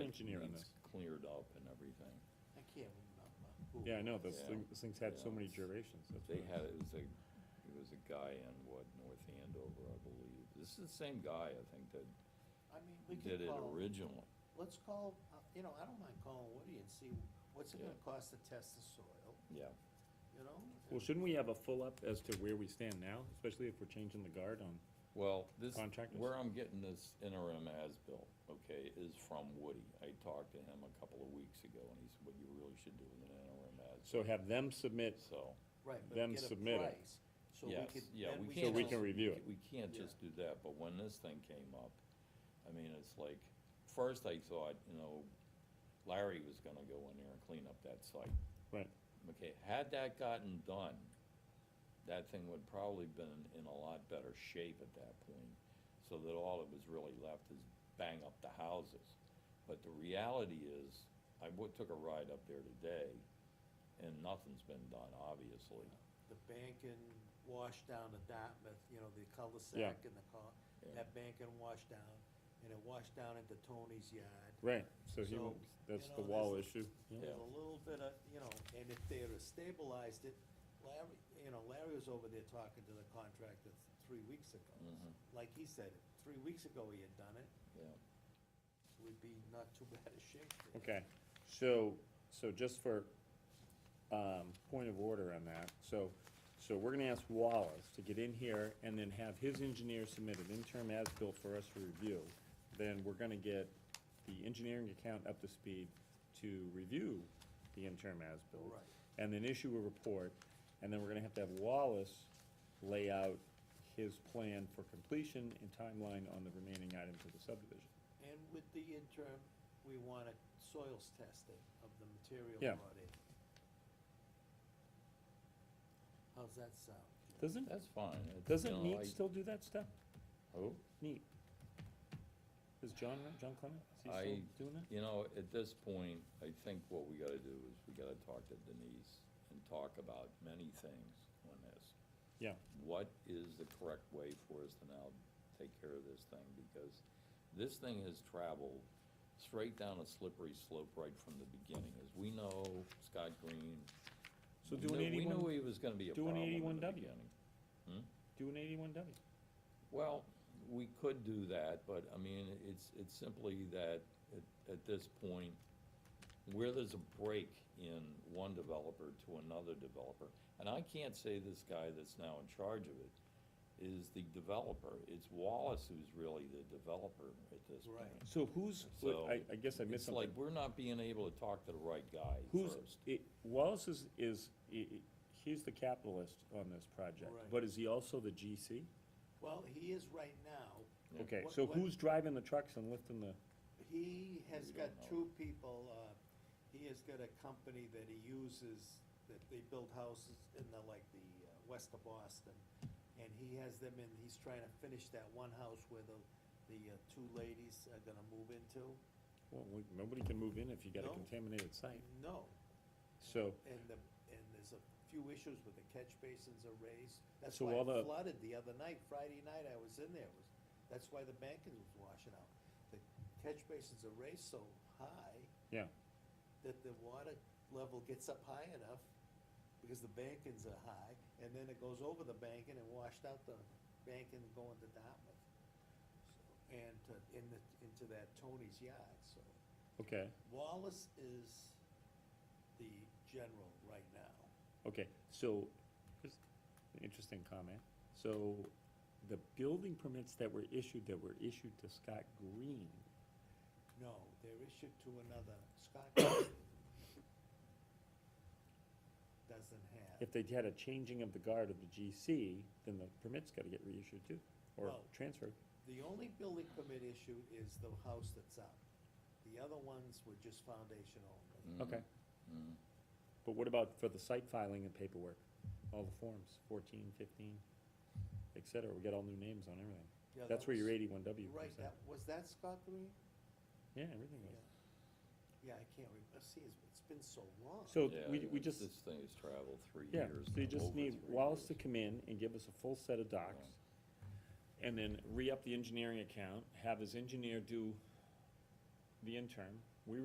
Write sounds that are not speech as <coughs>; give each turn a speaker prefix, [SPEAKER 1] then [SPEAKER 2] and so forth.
[SPEAKER 1] engineer on
[SPEAKER 2] needs
[SPEAKER 1] this.
[SPEAKER 2] Cleared up and everything.
[SPEAKER 3] I can't remember. who.
[SPEAKER 1] Yeah, I know, this
[SPEAKER 2] Yeah.
[SPEAKER 1] thing, this thing's had so
[SPEAKER 2] Yeah.
[SPEAKER 1] many durations, that's
[SPEAKER 2] They
[SPEAKER 1] what I-
[SPEAKER 2] had, it was a, it was a guy in what, North Andover, I believe. This is the same guy, I think, that
[SPEAKER 3] I mean, we
[SPEAKER 2] did
[SPEAKER 3] could
[SPEAKER 2] it
[SPEAKER 3] call,
[SPEAKER 2] originally.
[SPEAKER 3] let's call, uh, you know, I don't mind calling Woody and see what's it
[SPEAKER 2] Yeah.
[SPEAKER 3] gonna cost to test the soil,
[SPEAKER 2] Yeah.
[SPEAKER 3] you know?
[SPEAKER 1] Well, shouldn't we have a full up as to where we stand now, especially if we're changing the guard on,
[SPEAKER 2] Well, this,
[SPEAKER 1] Contractors.
[SPEAKER 2] where I'm getting this interim as-built, okay, is from Woody. I talked to him a couple of weeks ago, and he said, what you really should do is an interim as,
[SPEAKER 1] so have them submit,
[SPEAKER 2] so.
[SPEAKER 3] Right, but
[SPEAKER 1] them
[SPEAKER 3] get a
[SPEAKER 1] submit it.
[SPEAKER 3] price, so we
[SPEAKER 2] Yes,
[SPEAKER 3] could,
[SPEAKER 2] yeah,
[SPEAKER 3] then we
[SPEAKER 1] so
[SPEAKER 3] can.
[SPEAKER 1] we can review it.
[SPEAKER 2] We can't just do that, but when this thing came up, I mean, it's like, first I thought, you know, Larry was gonna go in there and clean up that site.
[SPEAKER 1] Right.
[SPEAKER 2] Okay, had that gotten done, that thing would probably been in a lot better shape at that point, so that all that was really left is bang up the houses. But the reality is, I wa- took a ride up there today, and nothing's been done, obviously.
[SPEAKER 3] The bank and wash down to Dartmouth, you know, the cul-de-sac and the car,
[SPEAKER 2] Yeah.
[SPEAKER 3] that bank and wash down, and it washed down into Tony's yard.
[SPEAKER 1] right, so he,
[SPEAKER 3] So,
[SPEAKER 1] won't- that's
[SPEAKER 3] you
[SPEAKER 1] the
[SPEAKER 3] know,
[SPEAKER 1] wall
[SPEAKER 3] there's-
[SPEAKER 1] issue. Yeah.
[SPEAKER 3] There's a little bit of, you know, and if they had stabilized it, Larry, you know, Larry was over there talking to the contractor th- three weeks ago.
[SPEAKER 1] Mm-hmm.
[SPEAKER 2] Mhm.
[SPEAKER 3] Like he said, three weeks ago he had done it,
[SPEAKER 2] Yeah.
[SPEAKER 3] we'd be not too <laughs> bad a shape. there.
[SPEAKER 1] <laughs> Okay, so, so just for, um, point of order on that, so, so we're gonna ask Wallace to get in here and then have his engineer submit an interim as-built for us to review. Then we're gonna get the engineering account up to speed to review the interim as-built.
[SPEAKER 3] Right.
[SPEAKER 1] And then issue a report, and then we're gonna have to have Wallace lay out his plan for completion and timeline on the remaining items of the subdivision.
[SPEAKER 3] And with the interim, we want a soils testing of the material
[SPEAKER 1] Yeah.
[SPEAKER 3] brought in. How's that sound?
[SPEAKER 1] Doesn't,
[SPEAKER 2] That's fine. It's, you
[SPEAKER 1] doesn't
[SPEAKER 2] know, I-
[SPEAKER 1] NEAT still do that stuff?
[SPEAKER 2] Who?
[SPEAKER 1] Neat. Is John, John Clement, is he
[SPEAKER 2] I-
[SPEAKER 1] still doing that?
[SPEAKER 2] You know, at this point, I think what we gotta do is we gotta talk to Denise and talk about many things on this.
[SPEAKER 1] Yeah,
[SPEAKER 2] What is the correct way for us to now take care of this thing? Because this thing has traveled straight down a slippery slope right from the beginning. As we know, Scott Green.
[SPEAKER 1] so
[SPEAKER 2] we
[SPEAKER 1] do an
[SPEAKER 2] knew- We knew
[SPEAKER 1] eighty-one,
[SPEAKER 2] he was gonna be a
[SPEAKER 1] do an
[SPEAKER 2] problem in the
[SPEAKER 1] 81W.
[SPEAKER 2] beginning.
[SPEAKER 1] do an eighty-one W.
[SPEAKER 2] Well, we could do that, but I mean, it's, it's simply that at, at this point, where there's a break in one developer to another developer, and I can't say this guy that's now in charge of it is the developer. It's Wallace who's really the developer at this point.
[SPEAKER 3] Right.
[SPEAKER 1] So who's, wait,
[SPEAKER 2] So,
[SPEAKER 1] I, I guess I missed
[SPEAKER 2] It's like,
[SPEAKER 1] something.
[SPEAKER 2] we're not being able to talk to the right guy
[SPEAKER 1] Who's,
[SPEAKER 2] first.
[SPEAKER 1] it, Wallace is, is, i- i- he's the capitalist on this project,
[SPEAKER 3] Right.
[SPEAKER 1] but is he also the GC?
[SPEAKER 3] Well, he is right now,
[SPEAKER 2] Yeah.
[SPEAKER 1] Okay,
[SPEAKER 3] What-
[SPEAKER 1] so
[SPEAKER 3] what-
[SPEAKER 1] who's driving the trucks and lifting the,
[SPEAKER 3] He has
[SPEAKER 2] We
[SPEAKER 3] got
[SPEAKER 2] don't know.
[SPEAKER 3] two people, uh, he has got a company that he uses, that they build houses in the, like, the, uh, west of Boston. And he has them in, he's trying to finish that one house where the, the, uh, two ladies are gonna move into.
[SPEAKER 1] well, we- nobody can move in if you got a
[SPEAKER 3] No.
[SPEAKER 1] contaminated site.
[SPEAKER 3] No,
[SPEAKER 1] So,
[SPEAKER 3] and the, and there's a few issues with the catch basins are raised. That's
[SPEAKER 1] So
[SPEAKER 3] why
[SPEAKER 1] all the-
[SPEAKER 3] it flooded the other night, Friday night I was in there, It was, that's why the banking was washing out. The catch basins are raised so high
[SPEAKER 1] yeah,
[SPEAKER 3] that the water level gets up high enough, because the bankings are high, and then it goes over the banking and washed out the banking going to Dartmouth. So, And to, in the, into that Tony's yard, so
[SPEAKER 1] okay,
[SPEAKER 3] Wallace is the general right now.
[SPEAKER 1] okay, so, here's an interesting comment. So, the building permits that were issued, that were issued to Scott Green,
[SPEAKER 3] No, they're issued to another, Scott <coughs> doesn't have.
[SPEAKER 1] if they had a changing of the guard of the GC, then the permit's gotta get reissued too, or
[SPEAKER 3] Well-
[SPEAKER 1] transferred.
[SPEAKER 3] The only building permit issue is the house that's up. The other ones were just foundation only.
[SPEAKER 1] Okay.
[SPEAKER 2] Mhm.
[SPEAKER 1] But what about for the site filing and paperwork? All the forms, fourteen, fifteen, et cetera, we got all new names on everything.
[SPEAKER 3] Yeah,
[SPEAKER 1] That's
[SPEAKER 3] that
[SPEAKER 1] where your
[SPEAKER 3] was-
[SPEAKER 1] eighty-one W
[SPEAKER 3] Right,
[SPEAKER 1] comes in.
[SPEAKER 3] that, was that Scott Green?
[SPEAKER 1] Yeah, everything was.
[SPEAKER 3] Yeah, I can't remember, see, it's, it's been so long.
[SPEAKER 1] So
[SPEAKER 2] Mm-hmm. Yeah,
[SPEAKER 1] we, we
[SPEAKER 2] it's-
[SPEAKER 1] just,
[SPEAKER 2] This thing has traveled three
[SPEAKER 1] yeah,
[SPEAKER 2] years.
[SPEAKER 1] so you
[SPEAKER 2] now,
[SPEAKER 1] just
[SPEAKER 2] over
[SPEAKER 1] need
[SPEAKER 2] three
[SPEAKER 1] Wallace to
[SPEAKER 2] years.
[SPEAKER 1] come in and give us a full set of docs. And then re-up the engineering account, have his engineer do the interim,